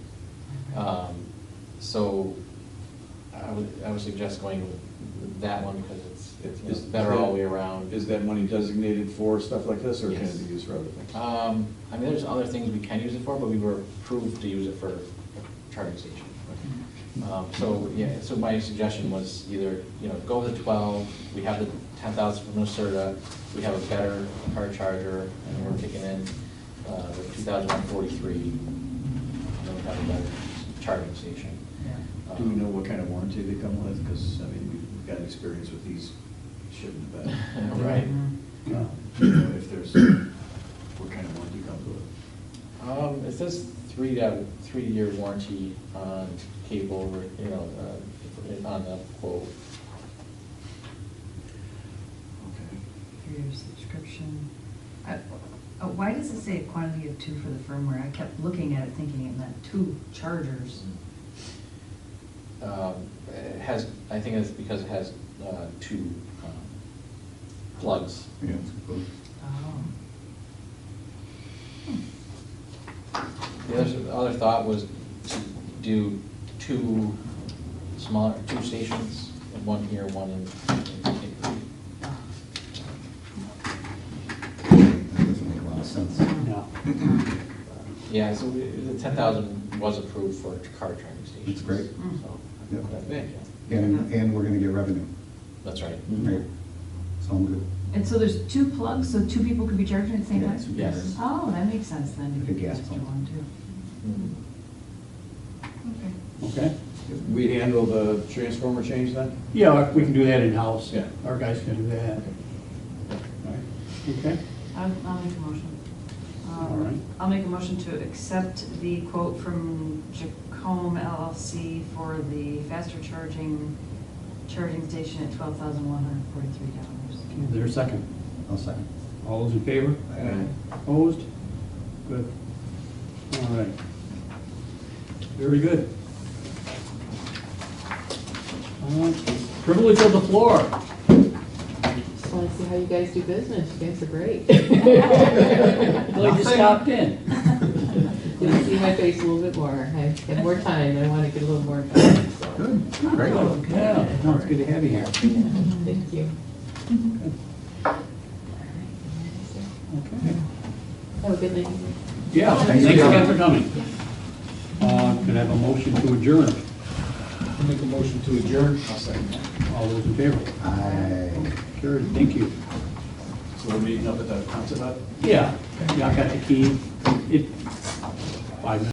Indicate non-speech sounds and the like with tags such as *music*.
Um, So I would, I would suggest going with that one because it's, it's you know, Is- better all the way around. Is that money designated for stuff like this, or can Yes. it be used for other things? Um, I mean, there's other things we can use it for, but we were approved to use it for a charging station. Um, So, yeah, so my suggestion was either, you know, go with the twelve, we have the ten thousand from Nucerta, we have a better car charger, and we're kicking in uh, the two thousand one forty-three, and then we have a better charging station. Um, Yeah. Do we know what kind of warranty they come with? Because, I mean, we've got experience with these shipping back. *laughs* Right. Um, you know, If there's, what kind of warranty comes with it? Um, it says three, uh, three-year warranty on cable, or, you know, uh, on the quote. Okay. Three-year subscription. I- uh, Why does it say a quantity of two for the firmware? I kept looking at it thinking it meant two chargers. Um, It has, I think it's because it has uh, two um, plugs. Yeah. Oh. The other, the other thought was to do two smaller, two stations, one here, one in. in Hickory. That doesn't make a lot of sense. No. uh, Yeah, so we- the ten thousand was approved for car charging stations. That's great. Mm. So, Yep. that- yeah. And, and we're gonna get revenue, That's right. right? So I'm good. And so there's two plugs, so two people could be charging at the same Yeah, time? two Yes. Oh, that makes sense then. Like a gas Extra pump. one too. Mm. Okay. Okay. We handle the transformer change then? Yeah, we can do that in-house. Yeah. Our guys can do that. All right. Okay, I'll, I'll make a motion. Um, All right. I'll make a motion to accept the quote from Jacome LLC for the faster charging, charging station at twelve thousand one hundred forty-three dollars. is there a second? I'll second. All those in favor? Opposed? Good. All right. Very good. Uh, Privilege of the floor. Just wanna see how you guys do business, you guys are great. Glad you stopped in. *laughs* You'll see my face a little bit more, I have more time, I wanna get a little more time, so, Good, great. Yeah, no, it's good to have you here. thank you. Okay. Have a good night. Yeah, Thanks thanks for again coming. for coming. Uh, Could I have a motion to adjourn? Make a motion to adjourn. I'll second that. All those in favor? Aye. Carried, thank you. So we're meeting up at the concert hut? Yeah, yeah, I got the key. It, five minutes.